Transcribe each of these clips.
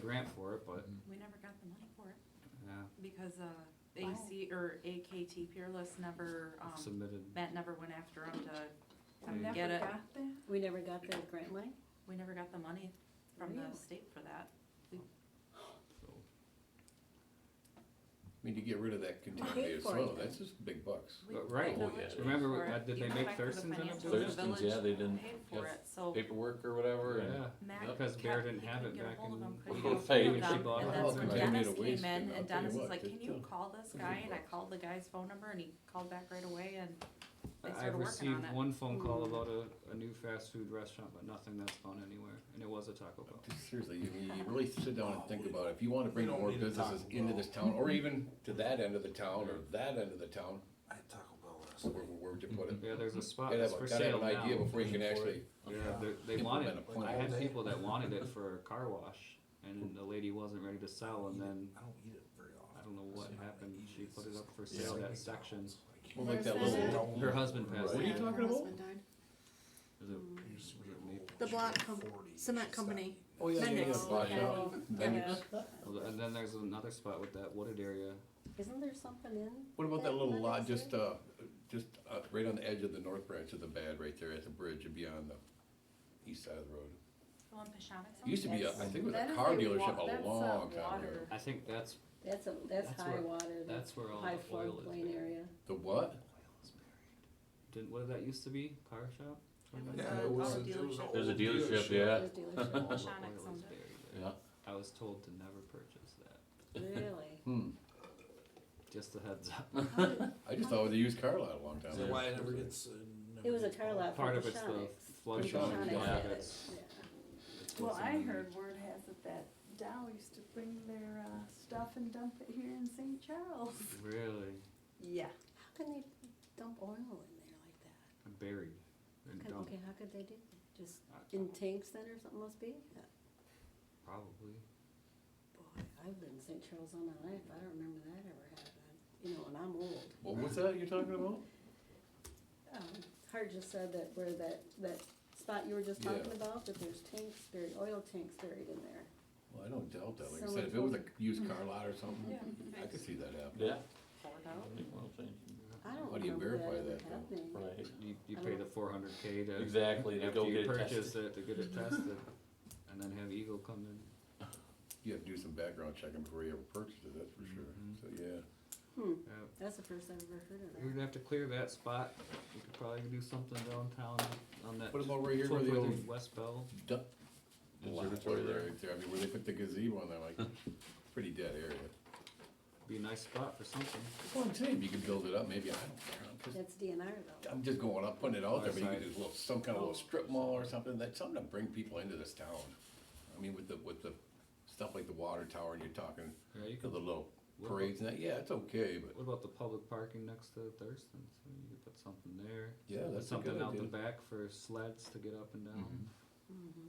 grant for it, but, We never got the money for it yeah, because, uh, Wow. AC or AKT Peerless never, um, submitted. Matt never went after them to, I never Get it. got that? We never got the grant money? we never got the money from Really? the state for that. so, I mean, to get rid of that contaminated for it, soil, though. that's just big bucks. We- But, right. the Oh, village yeah. paid Remember for that- it. did they Even make back to the Thurston's in it financial- too? the Thurston's, yeah, they village didn't- Paid for yes. it, so. paperwork or whatever, and Yeah, Matt Yep. Because Bear kept- didn't he have couldn't it get a back hold of in- him, Well, couldn't he get a paid hold when of she them. bought it. And that's when They made a Dennis waste, came and in, I'll and tell you Dennis was what, like, it's can you still- call this it's a guy? big And I box. called the guy's phone number and he called back right away and they I- I've started working on received it. Mm-hmm. one phone call about a, a new fast food restaurant, but nothing that's gone anywhere, and it was a Taco Bell. Seriously, you, you really sit down and think about it. If you wanna bring We don't more need to businesses talk into about- this town, or even to that end of the town, or that end of the town, I had Taco Bell last where, night. where would you put it? Yeah, there's a spot Gotta that's Mm-hmm. have, for a- gotta have sale an idea now. before you can Looking for actually, Yeah, they're- they Implement wanted, a plan. I All had day. people that wanted it for a car wash, and the lady wasn't ready to sell, and then, I don't eat it very often. I don't know what happened, she put it up for Yeah. sale, that section. well, like Where's that that little, at? Her husband passed. What are you Yeah, talking her about? husband died. Is it The block com- cement company. oh yeah, yeah, yeah, Mendix. block shop. Oh, Mendix. Well, And then there's another spot with that wooded area. Isn't there something in? What about that That little one lot is there? just, uh, just, uh, right on the edge of the north branch of the bad, right there at the bridge and beyond the east side of the road? The one Pashonix It Used to be, a- I think it was That a is car a wa- dealership that's a a long time water. ago. I think that's, That's a, that's That's high where- water, that's that's where all high the oil is floodplain buried. area. The what? Didn't, what did that used to be? Car shop? It was Yeah, a it auto was, a- it was an dealership. old There's dealership. Those dealerships, All the Shine it oil is someday. buried there. Yeah. I was told to never purchase that. Really? Hmm, Just a heads up. I just thought it was a used car lot a long time Is ago. that why it never gets, uh, never It was a gets car bought? lot for Part the of it's the flood. Pashonix, zone, yeah. part had of it, it's- yeah. it's Well, what's I in- heard word has it that Dow used to bring their, uh, stuff and dump it here in St. Charles. Really Yeah. How can they dump oil in there like that? buried and Could- dumped, Okay, how could they do that? Just I- in tanks then or something must be? Yeah. probably. Boy, I lived in St. Charles all my life, I don't remember that ever happening, you know, and I'm old. What was that you're talking about? Um, Hart just said that where that, that spot you were just Yeah. talking about, that there's tanks buried, oil tanks buried in there. Well, I don't doubt that. Like I So said, it if it was a used car lot or something, I could Thanks. see that happening. Yeah. Poured out. I don't How do you remember that verify ever that, though? happening. Right. You, you I pay don't- the four hundred K to. Exactly, they After go you get it purchase tested. it, to get it tested, and then have Eagle come in. You have to do some background checking before you ever purchase it, that's for sure. Mhm. So, yeah. Hmm, Yep. that's the first I've ever heard of that. We'd have to clear that spot, we could probably do something downtown on that. What about right here where the 12th old West Bell, duck Observatory observatory there. there, right there? I mean, where they put the gazebo on there, like, pretty dead area. be a nice spot for something. That's what I'm saying, if you could build it up, maybe, I don't care. I'm just- That's DNR though. I'm just going up, putting it out there, but you Outside. could do a little, some kind of little strip mall or something, that's something to bring people into this town. I mean, with the, with the stuff like the water tower and you're talking, Yeah, you the could, little What about- parades and that, yeah, it's okay, but what about the public parking next to Thurston's, I mean, you could put something there. yeah, Put that's a good Something out the idea. Mm-hmm. back for sleds to get up and down, Mhm.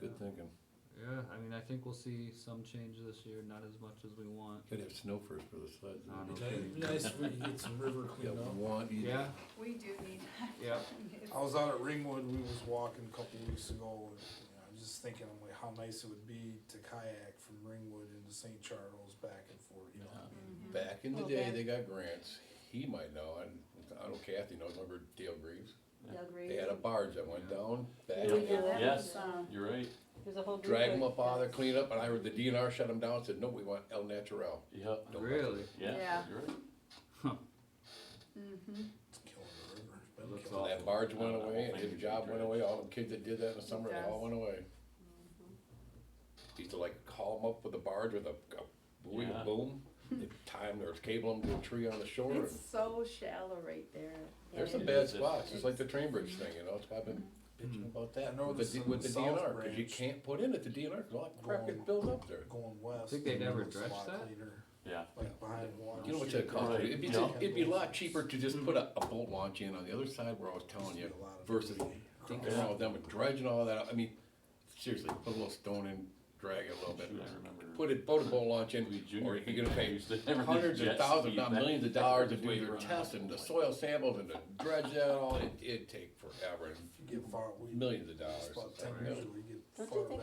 Good thinking. yeah, I mean, I think we'll see some change this year, not as much as we want. Gotta have snow first for the sleds. I know. It'd be nice if we could get some river Yeah, cleaned up. one, you- Yeah, We do need yeah, that. I was out at Ringwood, we was walking a couple weeks ago, and you know, I was just thinking, I'm like, how nice it would be to kayak from Ringwood into St. Charles back and forth, you know? what I mean? Back in the Well, day, back- they got grants, he might know, and I don't know Kathy knows, remember Dale Greaves? Doug They Reed. had a barge that went Yeah. down, back, Yeah, that Yes. was, uh, You're right. There's a whole group. drag of- them up out of there, clean up, and I heard the DNR shut them down, and said, no, we want El Natural. Yep. Don't mess really, Yeah. Yeah. You're right. Mm-hmm. It's killing the river. It's been Looks killing So awful. that barge went No, no, away, I and think his it job should be went dredged. away, all the kids that did that in the summer, they all does. went away. Used to like call them up with a barge with a, a buoy, a Yeah. boom, they time their cable them to a tree on the shore. and- It's so shallow right there. There's some It bad is. spots, it's like the train bridge thing, you know, it's why I've been bitching about that, I know with the, this D- is with the the South DNR, cause you Branch. can't put in at the DNR, cause all that crap gets Going- built up there. it. Going west. Think they'd the ever river's a dredge lot that? cleaner, Yeah. Like behind water. You know what that costs, Right, it'd be, yeah. it'd be a lot cheaper to just put a, a bolt launch in on the other side where I was telling you, versus Think fucking around with them with dredging all that, out. I mean, seriously, put a little stone in, drag it a little bit. Shoot, I remember. Put a boat boat launch in, We or junior you're gonna pay used to have hundreds of jet thousands, ski not back millions of and dollars to forth do way your around. tests and the soil samples and to dredge that all, it, it'd take forever, If you get far, we. millions of dollars. It's about sometimes. ten years, we get Don't you far think